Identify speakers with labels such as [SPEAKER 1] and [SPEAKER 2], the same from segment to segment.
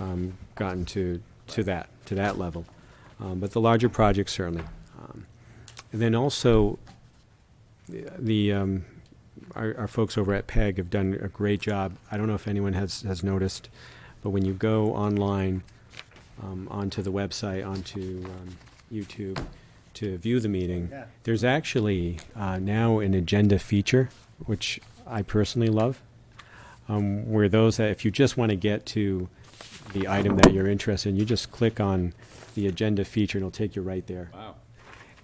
[SPEAKER 1] um, gotten to, to that, to that level. Um, But the larger projects certainly. Um, And then also, the- the, um, our, our folks over at PEG have done a great job. I don't know if anyone has, has noticed, but when you go online, um, onto the website, onto um, YouTube, to view the meeting,
[SPEAKER 2] Yeah.
[SPEAKER 1] there's actually uh, now an agenda feature, which I personally love, um, where those that if you just want to get to the item that you're interested in, you just click on the agenda feature and it'll take you right there.
[SPEAKER 2] Wow.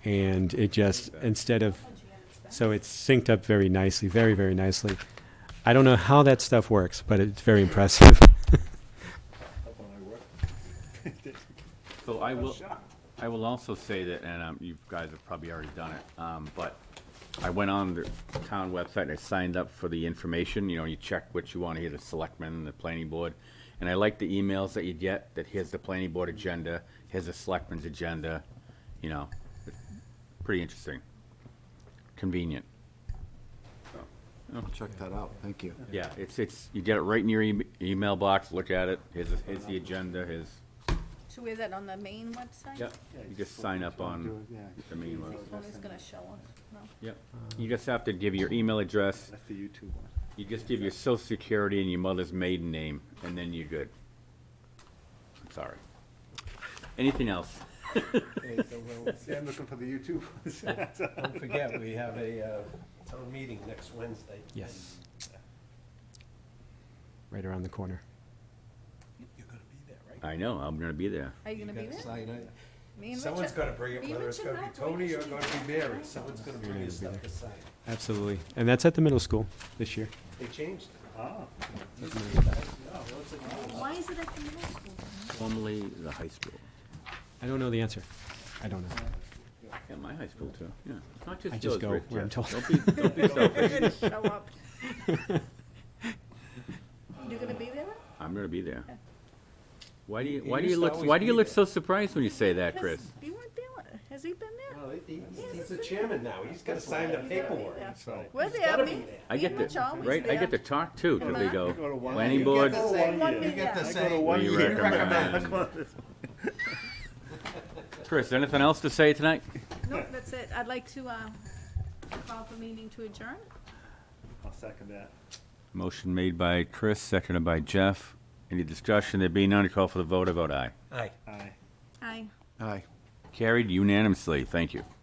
[SPEAKER 1] And it just, instead of, so it's synced up very nicely, very, very nicely. I don't know how that stuff works, but it's very impressive.
[SPEAKER 3] So I will,
[SPEAKER 2] shocked.
[SPEAKER 3] I will also say that, and um, you guys have probably already done it, um, but I went on the town website, and I signed up for the information, you know, you check what you want to hear, the selectmen, the planning board. And I like the emails that you get, that here's the planning board agenda, here's the selectmen's agenda, you know, it's pretty interesting. Convenient.
[SPEAKER 4] Check that out, thank you.
[SPEAKER 3] Yeah, it's, it's, you get it right in your em- email box, look at it, here's, the- here's the agenda, here's,
[SPEAKER 5] So is that on the main website?
[SPEAKER 3] yeah, you just sign up on the main
[SPEAKER 5] I
[SPEAKER 3] one.
[SPEAKER 5] think one is gonna show us, no?
[SPEAKER 3] Yep. You just have to give your email address,
[SPEAKER 2] That's the YouTube one.
[SPEAKER 3] you just give your social security and your mother's maiden name, and then you're good. I'm sorry. Anything else?
[SPEAKER 2] See, I'm looking for the YouTube ones.
[SPEAKER 6] Don't forget, we have a uh, town meeting next Wednesday.
[SPEAKER 1] Yes. Right around the corner.
[SPEAKER 6] You're gonna be there, right?
[SPEAKER 3] I know, I'm gonna be there.
[SPEAKER 5] Are you gonna be
[SPEAKER 6] You gotta
[SPEAKER 5] there?
[SPEAKER 6] sign it.
[SPEAKER 5] Me and
[SPEAKER 6] Someone's
[SPEAKER 5] Richard-
[SPEAKER 6] gonna bring it,
[SPEAKER 5] me and
[SPEAKER 6] whether it's
[SPEAKER 5] Richard
[SPEAKER 6] gonna be
[SPEAKER 5] Rathway, we
[SPEAKER 6] Tony or
[SPEAKER 5] should
[SPEAKER 6] gonna
[SPEAKER 5] do
[SPEAKER 6] be
[SPEAKER 5] that.
[SPEAKER 6] Mary, someone's gonna bring his stuff to sign.
[SPEAKER 1] Absolutely. And that's at the middle school this year.
[SPEAKER 6] They changed it.
[SPEAKER 2] Ah.
[SPEAKER 6] Used to be a thousand dollars.
[SPEAKER 5] Why is it at the middle school?
[SPEAKER 3] Formerly the high school.
[SPEAKER 1] I don't know the answer. I don't know.
[SPEAKER 3] Yeah, my high school too, yeah. It's Not
[SPEAKER 1] I just
[SPEAKER 3] just those,
[SPEAKER 1] go
[SPEAKER 3] Rick.
[SPEAKER 1] where I'm
[SPEAKER 3] Jeff.
[SPEAKER 1] told.
[SPEAKER 3] Don't be, don't be selfish.
[SPEAKER 5] You're gonna show up. You're gonna be there?
[SPEAKER 3] I'm gonna be there. Why do you,
[SPEAKER 6] He
[SPEAKER 3] why do
[SPEAKER 6] used
[SPEAKER 3] you
[SPEAKER 6] to
[SPEAKER 3] look,
[SPEAKER 6] always
[SPEAKER 3] why do you
[SPEAKER 6] be
[SPEAKER 3] look
[SPEAKER 6] there.
[SPEAKER 3] so surprised when you say that, Chris?
[SPEAKER 5] Has- You weren't there, has he been there?
[SPEAKER 6] No, he- he's- He's the chairman now, he's gotta sign the
[SPEAKER 5] He's gotta be
[SPEAKER 6] paperwork,
[SPEAKER 5] there.
[SPEAKER 6] so.
[SPEAKER 5] We're
[SPEAKER 6] he's
[SPEAKER 5] there,
[SPEAKER 6] gotta
[SPEAKER 5] me,
[SPEAKER 6] be there.
[SPEAKER 3] I
[SPEAKER 5] me
[SPEAKER 3] get
[SPEAKER 5] and Rich
[SPEAKER 3] to,
[SPEAKER 5] always there.
[SPEAKER 3] right, I get to talk too, cause they
[SPEAKER 5] Uh-huh.
[SPEAKER 3] go,
[SPEAKER 2] Go to one
[SPEAKER 3] planning
[SPEAKER 2] year.
[SPEAKER 3] board,
[SPEAKER 2] Go to
[SPEAKER 5] Say
[SPEAKER 2] one
[SPEAKER 5] one
[SPEAKER 2] year.
[SPEAKER 6] You get to
[SPEAKER 5] Yeah.
[SPEAKER 6] say,
[SPEAKER 2] Go to
[SPEAKER 3] we
[SPEAKER 2] one year.
[SPEAKER 3] recommend. Chris, anything else to say tonight?
[SPEAKER 5] No, that's it, I'd like to, uh, call the meeting to adjourn.
[SPEAKER 2] I'll second that.
[SPEAKER 3] Motion made by Chris, seconded by Jeff. Any discussion? There being none, call for the vote. I vote aye.
[SPEAKER 6] Aye.
[SPEAKER 2] Aye.
[SPEAKER 5] Aye.
[SPEAKER 4] Aye.
[SPEAKER 3] Carried unanimously. Thank you.